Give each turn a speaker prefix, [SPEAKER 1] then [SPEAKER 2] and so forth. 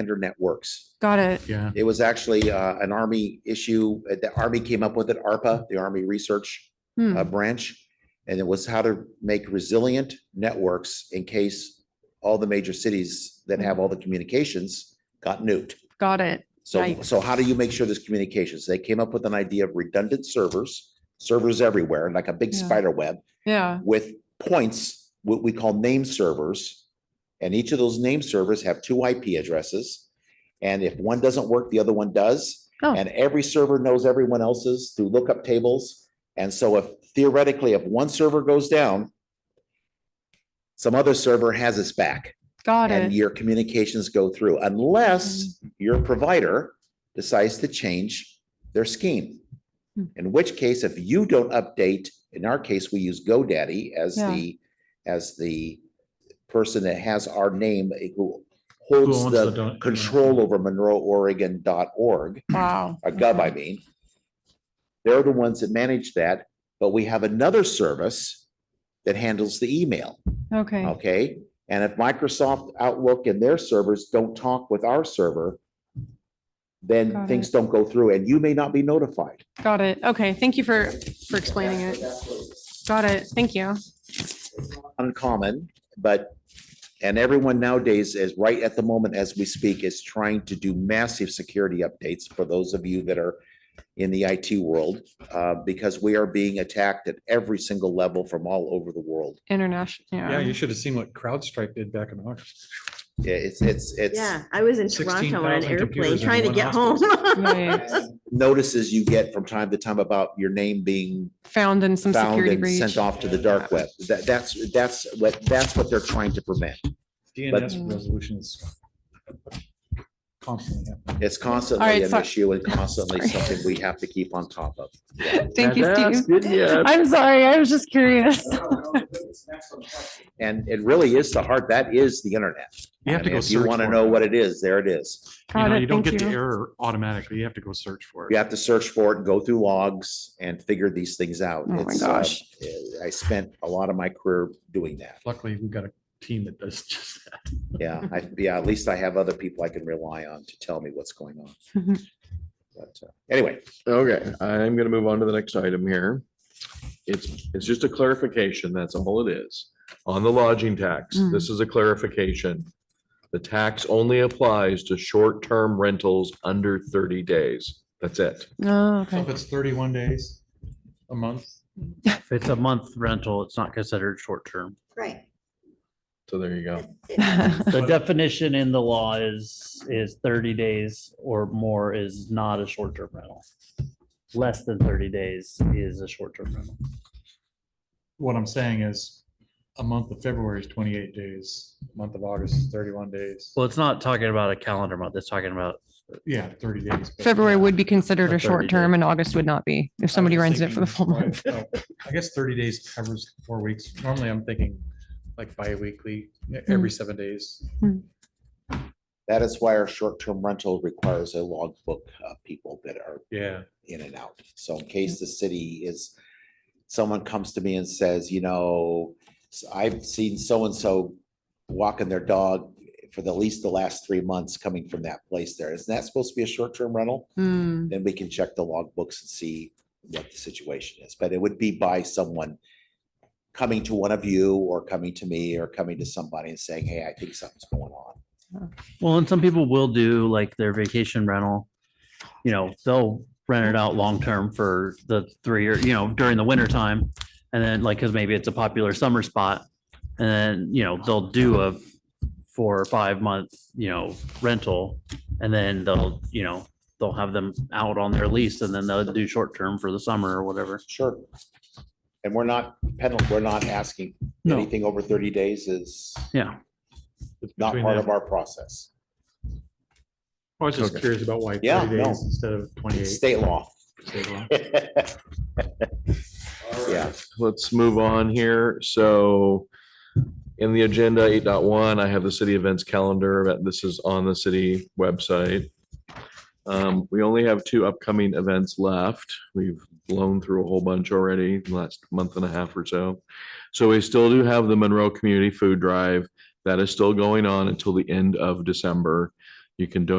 [SPEAKER 1] standard that works.
[SPEAKER 2] Got it.
[SPEAKER 3] Yeah.
[SPEAKER 1] It was actually uh, an Army issue. uh, The Army came up with it, ARPA, the Army Research
[SPEAKER 2] Hmm.
[SPEAKER 1] uh, Branch. And it was how to make resilient networks in case all the major cities that have all the communications got nuked.
[SPEAKER 2] Got it.
[SPEAKER 1] So,
[SPEAKER 2] Right.
[SPEAKER 1] so how do you make sure there's communications? They came up with an idea of redundant servers, servers everywhere, like a big
[SPEAKER 2] Yeah.
[SPEAKER 1] spider web
[SPEAKER 2] Yeah.
[SPEAKER 1] with points, what we call name servers. And each of those name servers have two IP addresses. And if one doesn't work, the other one does.
[SPEAKER 2] Oh.
[SPEAKER 1] And every server knows everyone else's through lookup tables. And so if theoretically, if one server goes down, some other server has its back
[SPEAKER 2] Got
[SPEAKER 1] and
[SPEAKER 2] it. Mm-hmm.
[SPEAKER 1] your communications go through unless your provider decides to change their scheme.
[SPEAKER 2] Hmm.
[SPEAKER 1] In which case, if you don't update, in our case, we use GoDaddy as
[SPEAKER 2] Yeah.
[SPEAKER 1] the, as the person that has our name eh, who
[SPEAKER 3] Who
[SPEAKER 1] holds
[SPEAKER 3] owns
[SPEAKER 1] the
[SPEAKER 3] dot-
[SPEAKER 1] control over monroeoregon.org,
[SPEAKER 2] Wow.
[SPEAKER 1] or uh, gov,
[SPEAKER 2] Okay.
[SPEAKER 1] I mean. They're the ones that manage that, but we have another service that handles the email.
[SPEAKER 2] Okay.
[SPEAKER 1] Okay, and if Microsoft Outlook and their servers don't talk with our server, then
[SPEAKER 2] Got
[SPEAKER 1] things don't go through and you may not be notified.
[SPEAKER 2] Got it. Okay. Thank you for, for explaining it. Got it. Thank you.
[SPEAKER 1] Uncommon, but, and everyone nowadays is right at the moment as we speak is trying to do massive security updates for those of you that are in the IT world, uh, because we are being attacked at every single level from all over the world.
[SPEAKER 2] International.
[SPEAKER 3] Yeah,
[SPEAKER 2] Yeah.
[SPEAKER 3] you should have seen what CrowdStrike did back in August.
[SPEAKER 1] Yeah, It's, it's, it's.
[SPEAKER 4] Yeah, I was in
[SPEAKER 3] 16,000
[SPEAKER 4] Toronto on an airplane
[SPEAKER 3] computers in
[SPEAKER 4] trying to
[SPEAKER 3] one
[SPEAKER 4] get home.
[SPEAKER 3] hospital.
[SPEAKER 2] Right.
[SPEAKER 1] Notices you get from time to time about your name being
[SPEAKER 2] Found in some
[SPEAKER 1] found
[SPEAKER 2] security
[SPEAKER 1] and
[SPEAKER 2] breach.
[SPEAKER 1] sent off to the dark web. That, that's, that's what, that's what they're trying to prevent.
[SPEAKER 3] DNS resolutions. Constantly. happen.
[SPEAKER 1] It's constantly an
[SPEAKER 2] so-
[SPEAKER 1] issue and constantly
[SPEAKER 2] Sorry.
[SPEAKER 1] something we have to keep on top of.
[SPEAKER 2] Thank you, Steve. I'm sorry. I was just curious.
[SPEAKER 1] And it really is the heart, that is the internet.
[SPEAKER 3] You have
[SPEAKER 1] I
[SPEAKER 3] to
[SPEAKER 1] mean,
[SPEAKER 3] go.
[SPEAKER 1] If you
[SPEAKER 3] search
[SPEAKER 1] want to
[SPEAKER 3] for
[SPEAKER 1] know what it is, there it is.
[SPEAKER 3] You
[SPEAKER 2] Got
[SPEAKER 3] know,
[SPEAKER 2] it.
[SPEAKER 3] you don't
[SPEAKER 2] Thank
[SPEAKER 3] get the
[SPEAKER 2] you.
[SPEAKER 3] error automatically. You have to go search for
[SPEAKER 1] You
[SPEAKER 3] it.
[SPEAKER 1] have to search for it, and go through logs and figure these things out.
[SPEAKER 2] Oh my
[SPEAKER 1] It's, uh,
[SPEAKER 2] gosh.
[SPEAKER 1] I spent a lot of my career doing that.
[SPEAKER 3] Luckily, we've got a team that does just that.
[SPEAKER 1] Yeah, I, yeah, at least I have other people I can rely on to tell me what's going on.
[SPEAKER 2] Mhm.
[SPEAKER 1] But uh, anyway,
[SPEAKER 5] Okay, I'm gonna move on to the next item here. It's, it's just a clarification, that's all it is. On the lodging tax,
[SPEAKER 2] Mm.
[SPEAKER 5] this is a clarification. The tax only applies to short-term rentals under thirty days. That's it.
[SPEAKER 2] Oh,
[SPEAKER 3] So if
[SPEAKER 2] okay.
[SPEAKER 3] it's thirty-one days, a month,
[SPEAKER 6] If it's a month rental, it's not considered short term.
[SPEAKER 4] Right.
[SPEAKER 5] So there you go.
[SPEAKER 6] The definition in the law is, is thirty days or more is not a short term rental. Less than thirty days is a short term rental.
[SPEAKER 3] what I'm saying is a month of February is twenty-eight days, a month of August is thirty-one days.
[SPEAKER 6] Well, it's not talking about a calendar month. It's talking about,
[SPEAKER 3] Yeah, thirty days. but-
[SPEAKER 2] February would be considered
[SPEAKER 6] A
[SPEAKER 2] a short
[SPEAKER 6] 30
[SPEAKER 2] term
[SPEAKER 6] day.
[SPEAKER 2] and August would not be if somebody
[SPEAKER 3] was
[SPEAKER 2] runs it for the
[SPEAKER 3] thinking,
[SPEAKER 2] full
[SPEAKER 3] why-
[SPEAKER 2] month.
[SPEAKER 3] oh, I guess thirty days covers four weeks. Normally, I'm thinking like bi-weekly, e-,
[SPEAKER 2] Hmm.
[SPEAKER 3] every seven days.
[SPEAKER 1] That is why our short-term rental requires a logbook of people that are
[SPEAKER 3] Yeah.
[SPEAKER 1] in and out. So in case the city is, someone comes to me and says, you know, s- I've seen so-and-so walking their dog for the least the last three months coming from that place there. Isn't that supposed to be a short-term rental?
[SPEAKER 2] Hmm.
[SPEAKER 1] Then we can check the logbooks and see what the situation is. But it would be by someone coming to one of you or coming to me or coming to somebody and saying, hey, I think something's going on.
[SPEAKER 6] well, and some people will do like their vacation rental. You know, they'll rent it out long term for the three or, you know, during the winter time. And then like, cause maybe it's a popular summer spot. And then, you know, they'll do a four or five month, you know, rental. And then they'll, you know, they'll have them out on their lease and then they'll do short term for the summer or whatever.
[SPEAKER 1] Sure. And we're not penal, we're not asking
[SPEAKER 6] No.
[SPEAKER 1] anything over thirty days is
[SPEAKER 6] Yeah.
[SPEAKER 1] not
[SPEAKER 3] between
[SPEAKER 1] part
[SPEAKER 3] that.
[SPEAKER 1] of our process.
[SPEAKER 3] I was just
[SPEAKER 5] Okay.
[SPEAKER 3] curious about why
[SPEAKER 1] Yeah,
[SPEAKER 3] thirty
[SPEAKER 1] no.
[SPEAKER 3] days instead of
[SPEAKER 1] It's
[SPEAKER 3] twenty-eight.
[SPEAKER 1] state law. Yeah,
[SPEAKER 5] Let's move on here. So in the agenda eight point one, I have the city events calendar. but This is on the city website. Um, we only have two upcoming events left. We've blown through a whole bunch already in the last month and a half or so. So we still do have the Monroe Community Food Drive. That is still going on until the end of December. You can donate